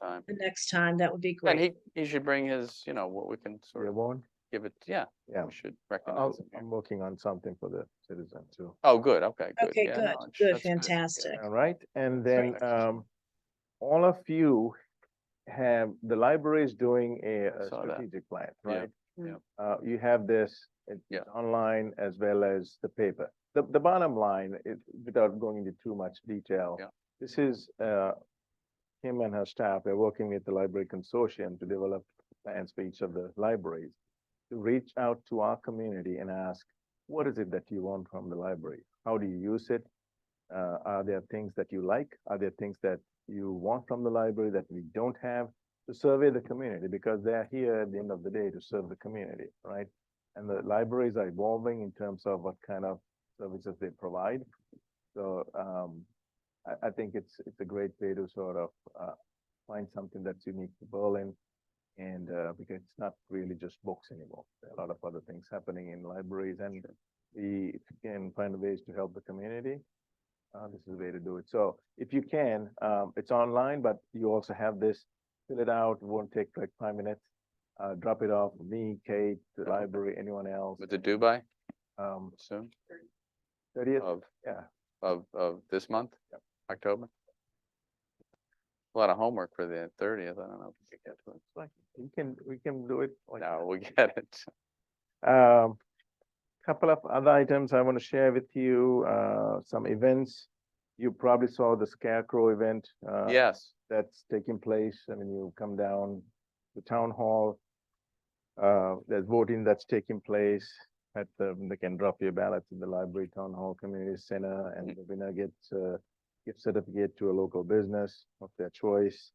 time. the next time, that would be And great. he, he should bring his, you know, what we can sort Your of one? give it, yeah, Yeah, Oh, um, we should I'll- recognize him. here. I'm looking on something for the citizen too. Oh, good, okay, good. Okay, yeah, good, no, it's- good, that's yeah. fantastic. All right, and then Perfect. um, all of you have, the library is doing a a Saw that. strategic plan, Yeah, right? yeah. Uh, you have this, it's Yeah. online as well as the paper. The, the bottom line, it, without going into too much detail. Yeah. This is, uh, Kim and her staff, they're working with the library consortium to develop plans for each of the libraries. To reach out to our community and ask, what is it that you want from the library? How do you use it? Uh, are there things that you like? Are there things that you want from the library that we don't have? To survey the community because they're here at the end of the day to serve the community, right? And the libraries are evolving in terms of what kind of services they provide. So, um, I, I think it's, it's a great way to sort of, uh, find something that's unique to Berlin. And, uh, because it's not really just books anymore. There are a lot of other things happening in libraries and we can find ways to help the community. Uh, this is the way to do it. So if you can, um, it's online, but you also have this, fill it out, It won't take like five minutes. Uh, drop it off, me, Kate, the Okay. library, anyone else, With the Dubai um, soon thirtieth, of, yeah. of, of this month, October. A lot of homework for the thirtieth, I don't know if we could get to it. Like, we can, we can do it like. No, we get it. Um, couple of other items I want to share with you, uh, some events. You probably saw the Scarecrow event. uh, Yes, that's taking place. I mean, you come down the town hall. Uh, there's voting that's taking place at the, they can drop your ballots in the library, town hall, community center, and Mm-hmm. the winner gets a gift certificate to a local business of their choice.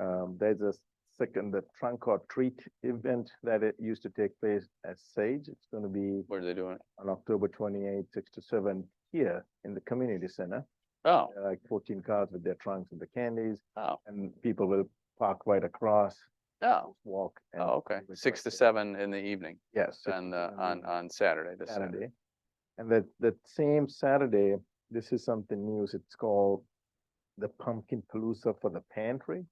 Um, there's a second, the trunk or treat event that it used to take place at Sage. It's gonna be what are they doing? on October twenty-eighth, six to seven here in the community center. Oh, There are Like fourteen cars with their trunks and the candies oh, and people will park right across, oh, walk. and oh, okay, do it six right to there. seven in the evening Yes. six and, to uh, on, seven on Saturday, this Saturday. Saturday. And that, that same Saturday, this is something news, it's called the Pumpkin Palooza for the Pantry.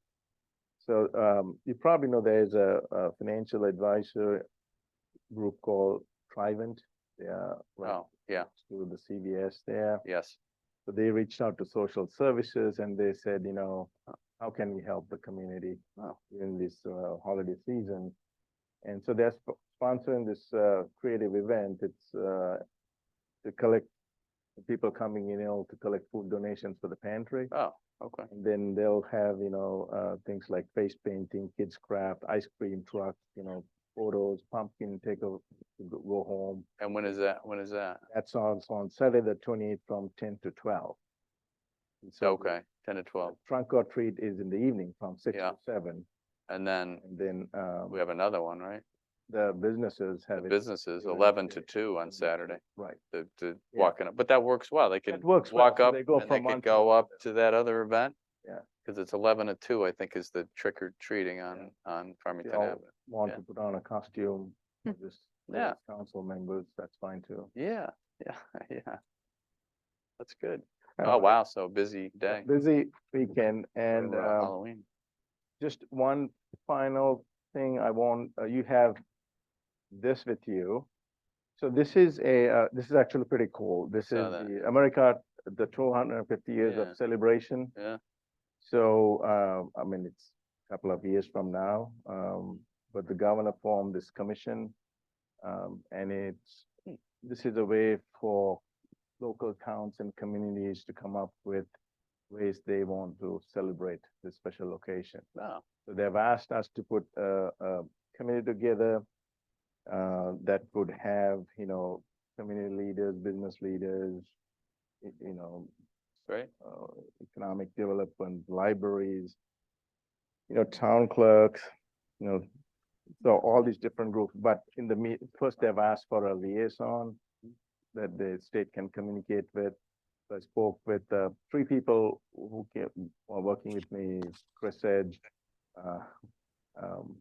So, um, you probably know there's a, a financial advisor group called Trivent. They are right Oh, yeah, through the CVS there. yes, So they reached out to social services and they said, you know, how can we help the community Oh. during this uh, holiday season? And so they're sp- sponsoring this uh, creative event. It's uh, to collect the people coming in, you know, to collect food donations for the pantry. oh, okay, And then they'll have, you know, uh, things like face painting, kids craft, ice cream truck, you know, photos, pumpkin take a, go go home. and when is that, when is that? That's on, on Saturday, the twenty-eighth from ten to twelve. And so the- Okay, ten to twelve, Trunk or treat is in the evening from six Yeah. to seven, and then and then, um, we have another one, right? the businesses The have it. businesses, during the eleven to day. two on Saturday, Right, the, the Yeah. walking up, but that works well, they it could works. well, walk so up They and go they from one. could go up to that other event. Yeah. Cause it's eleven to two, I think, is the trick or treating on, on Farmington all- Avenue. Want yeah. to put on a costume, Hmm. for this, for Yeah. this council members, that's fine too. Yeah, yeah, yeah. That's good. Uh, Oh, wow, so busy a day. Busy weekend for, and, uh, um, Halloween. just one final thing I want, uh, you have this with you. So this is a, uh, this is actually pretty cool. This is Saw that. the America, the two hundred and fifty years Yeah. of celebration. Yeah. So, uh, I mean, it's a couple of years from now, um, but the governor formed this commission. Um, and Hmm. it's, this is a way for local towns and communities to come up with ways they want to celebrate this special occasion. Oh, So they've asked us to put a, a committee together uh, that would have, you know, community leaders, business leaders, y- you know, great. uh, economic development, libraries, you know, town clerks, you know, so all these different groups, but in the meet, first they've asked for a liaison that the state can communicate with. So I spoke with, uh, three people who came, are working with me, Chris Edge, uh, um,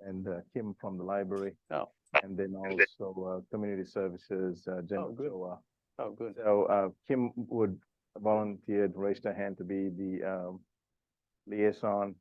and uh, Kim from the library. Oh. And then also, uh, community services, uh, Jen Oh, good. Ochoa. Oh, good. So uh, Kim would volunteered, raised her hand to be the um, liaison